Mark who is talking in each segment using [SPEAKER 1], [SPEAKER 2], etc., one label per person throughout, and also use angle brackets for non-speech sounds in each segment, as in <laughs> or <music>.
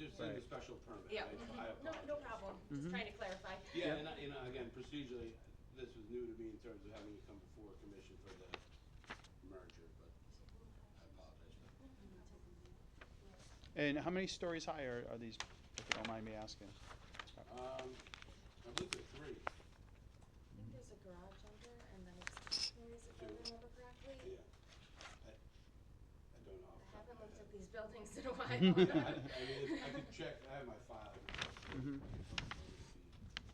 [SPEAKER 1] in the
[SPEAKER 2] Right.
[SPEAKER 1] special permit.
[SPEAKER 3] Yeah.
[SPEAKER 4] Mm-hmm.
[SPEAKER 1] I- I
[SPEAKER 3] No,
[SPEAKER 1] apologize.
[SPEAKER 3] no problem,
[SPEAKER 2] Mhm.
[SPEAKER 3] just trying to clarify.
[SPEAKER 1] Yeah,
[SPEAKER 2] Yep.
[SPEAKER 1] and, I- and I- again, procedurally, this was new to me in terms of having to come before a commission for the merger, but I apologize for that.
[SPEAKER 2] And how many stories high are, are these, if you don't mind me asking?
[SPEAKER 1] Um, I believe there are three,
[SPEAKER 4] I think there's a garage under and then it's stories, if I remember
[SPEAKER 1] yeah.
[SPEAKER 4] correctly.
[SPEAKER 1] I, I don't know.
[SPEAKER 4] I
[SPEAKER 1] off the top of
[SPEAKER 4] haven't
[SPEAKER 1] my
[SPEAKER 4] looked
[SPEAKER 1] head.
[SPEAKER 4] at these buildings <laughs> in a while.
[SPEAKER 1] Yeah, I, I mean, it's- I could <laughs> check, I have my file.
[SPEAKER 2] Mhm.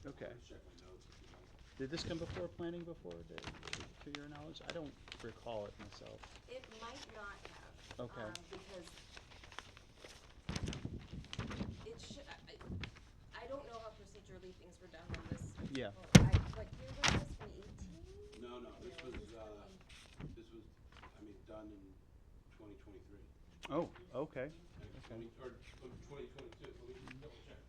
[SPEAKER 2] Okay.
[SPEAKER 1] Check my notes if you like.
[SPEAKER 2] Did this come before planning before, to, to your knowledge? I don't recall it myself.
[SPEAKER 4] It might not have.
[SPEAKER 2] Okay.
[SPEAKER 4] um, Because it should, I, I don't know how procedurally things were done on this.
[SPEAKER 2] Yeah.
[SPEAKER 4] well, I, what year was this, from eighteen?
[SPEAKER 1] No, no, this was, uh, this was, I mean, done in twenty twenty-three.
[SPEAKER 2] Oh, okay.
[SPEAKER 1] Twenty, or twenty twenty-two, let me just double check.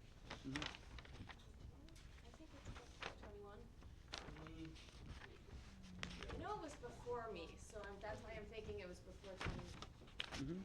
[SPEAKER 2] Mhm.
[SPEAKER 4] I think it's before twenty-one.
[SPEAKER 1] Mm,
[SPEAKER 4] I know it was before me, so I'm, that's why I'm thinking it was before twenty.
[SPEAKER 2] Mhm.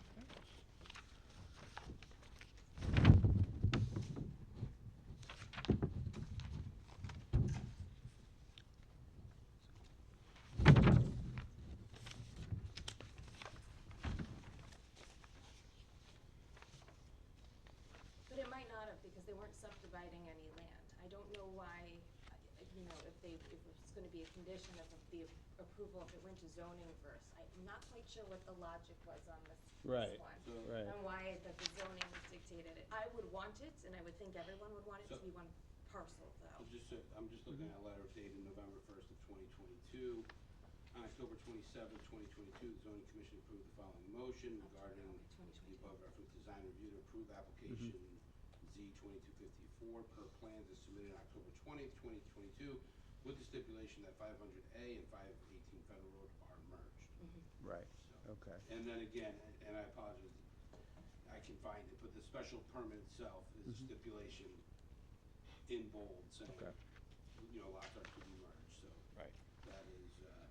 [SPEAKER 4] But it might not have, because they weren't subdividing any land. I don't know why, I- I- you know, if they, if it's gonna be a condition of the approval, if it went to zoning first. I'm not quite sure what the logic was on this, this
[SPEAKER 2] Right,
[SPEAKER 4] one.
[SPEAKER 1] So,
[SPEAKER 2] Right.
[SPEAKER 4] And why that the zoning dictated it. I would want it, and I would think everyone would want it to
[SPEAKER 1] So-
[SPEAKER 4] be one parcel, though.
[SPEAKER 1] I'm just, I'm just looking at a letter dated November first of twenty twenty-two. On October twenty-seventh, twenty twenty-two, the zoning commission approved the following motion regarding the
[SPEAKER 4] 2022.
[SPEAKER 1] above referenced design review to approve application Z twenty-two fifty-four per plans as submitted on October twentieth, twenty twenty-two, with the stipulation that five hundred A and five eighteen Federal Road are merged.
[SPEAKER 2] Right,
[SPEAKER 1] So,
[SPEAKER 2] okay.
[SPEAKER 1] and then again, and- and I apologize, I can find it, but the special permit itself is a stipulation in bold saying,
[SPEAKER 2] Mm-hmm. Okay.
[SPEAKER 1] you know, lots are to be merged, so
[SPEAKER 2] Right.
[SPEAKER 1] that is, uh,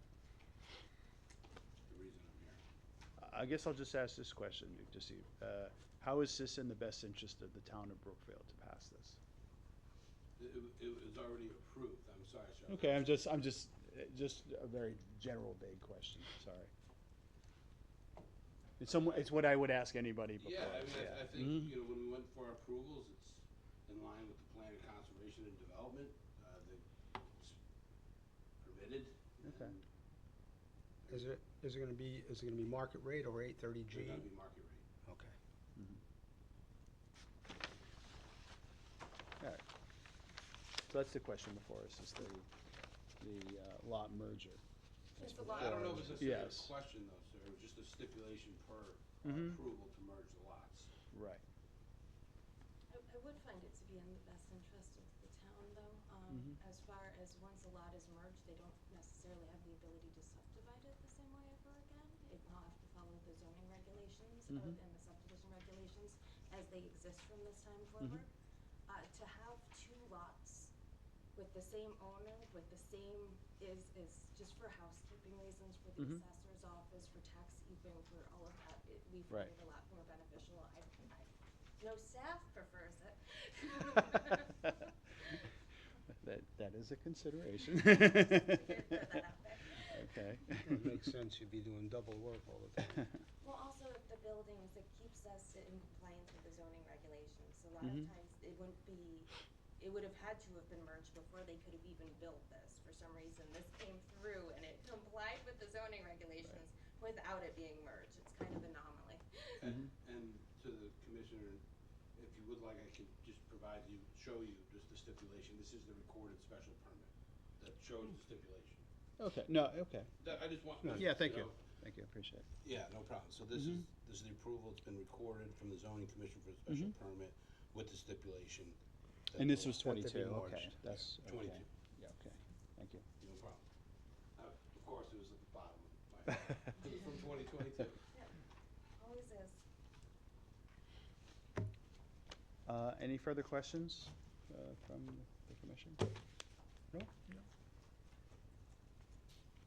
[SPEAKER 1] the reason I'm here.
[SPEAKER 2] I- I guess I'll just ask this question, Duke, to see, uh, how is this in the best interest of the town of Brookfield to pass this?
[SPEAKER 1] It, it- it was already approved, I'm sorry, sir.
[SPEAKER 2] Okay, I'm just, I'm just, uh, just a very general vague question, sorry. It's some, it's what I would ask anybody before.
[SPEAKER 1] Yeah, I mean, I, I
[SPEAKER 2] Mhm.
[SPEAKER 1] think, you know, when we went for approvals, it's in line with the plan of conservation and development, uh, that it's permitted.
[SPEAKER 2] Okay.
[SPEAKER 1] and
[SPEAKER 5] Is it, is it gonna be, is it gonna be market rate or eight thirty
[SPEAKER 1] They're
[SPEAKER 5] G?
[SPEAKER 1] gonna be market rate.
[SPEAKER 5] Okay.
[SPEAKER 2] Alright. So that's the question before us, is the, the uh, lot merger.
[SPEAKER 4] It's a lot.
[SPEAKER 1] I don't know if it's necessarily a
[SPEAKER 2] Yes.
[SPEAKER 1] question though, sir, it was just a stipulation per uh,
[SPEAKER 2] Mhm.
[SPEAKER 1] approval to merge the lots.
[SPEAKER 2] Right.
[SPEAKER 4] I, I would find it to be in the best interest of the town, though, um, as far as once a lot is merged, they don't necessarily have the ability to subdivide it the same way ever again. It will have to follow the zoning regulations of,
[SPEAKER 2] Mhm.
[SPEAKER 4] and the subdivision regulations as they exist from this time
[SPEAKER 2] Mhm.
[SPEAKER 4] forward. Uh, to have two lots with the same owner, with the same, is, is just for housekeeping reasons, for the
[SPEAKER 2] Mhm.
[SPEAKER 4] assessor's office, for tax even, for all of that, it, we
[SPEAKER 2] Right.
[SPEAKER 4] find it a lot more beneficial. I, I no staff prefers it.
[SPEAKER 2] <laughs> That, that is a consideration. Okay.
[SPEAKER 5] It makes sense, you'd be doing double work all the time.
[SPEAKER 2] <laughs>
[SPEAKER 4] Well, also with the buildings, it keeps us in compliance with the zoning regulations. A lot of
[SPEAKER 2] Mhm.
[SPEAKER 4] times, it wouldn't be, it would have had to have been merged before they could have even built this. For some reason, this came through and it complied with the zoning regulations without it being merged. It's kind of anomaly.
[SPEAKER 2] Mm-hmm.
[SPEAKER 1] And, and to the commissioner, if you would like, I can just provide you, show you just the stipulation, this is the recorded special permit that shows the stipulation.
[SPEAKER 2] Okay, no, okay.
[SPEAKER 1] That, I just want.
[SPEAKER 2] Yeah, thank you. Mm-hmm.
[SPEAKER 1] know,
[SPEAKER 2] Thank you, appreciate it.
[SPEAKER 1] Yeah, no problem, so this is, this is the approval, it's been recorded from the zoning commission for the special permit with the stipulation. that
[SPEAKER 2] Mm-hmm. And this
[SPEAKER 1] the
[SPEAKER 2] was
[SPEAKER 1] lot-
[SPEAKER 5] Had to be
[SPEAKER 2] twenty-two, okay,
[SPEAKER 5] merged.
[SPEAKER 2] that's, okay.
[SPEAKER 1] Twenty-two,
[SPEAKER 2] Yeah, okay, thank you.
[SPEAKER 1] no problem. Uh, Of course, it was at the bottom of
[SPEAKER 2] <laughs>
[SPEAKER 1] my, it was from twenty twenty-two.
[SPEAKER 4] Always is.
[SPEAKER 2] Uh, any further questions, uh, from the commission? No? No.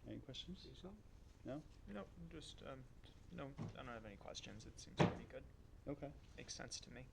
[SPEAKER 2] Any questions?
[SPEAKER 5] See something?
[SPEAKER 6] No, just, um, no, I don't have any questions. It seems pretty good.
[SPEAKER 2] Okay,
[SPEAKER 6] Makes sense to me.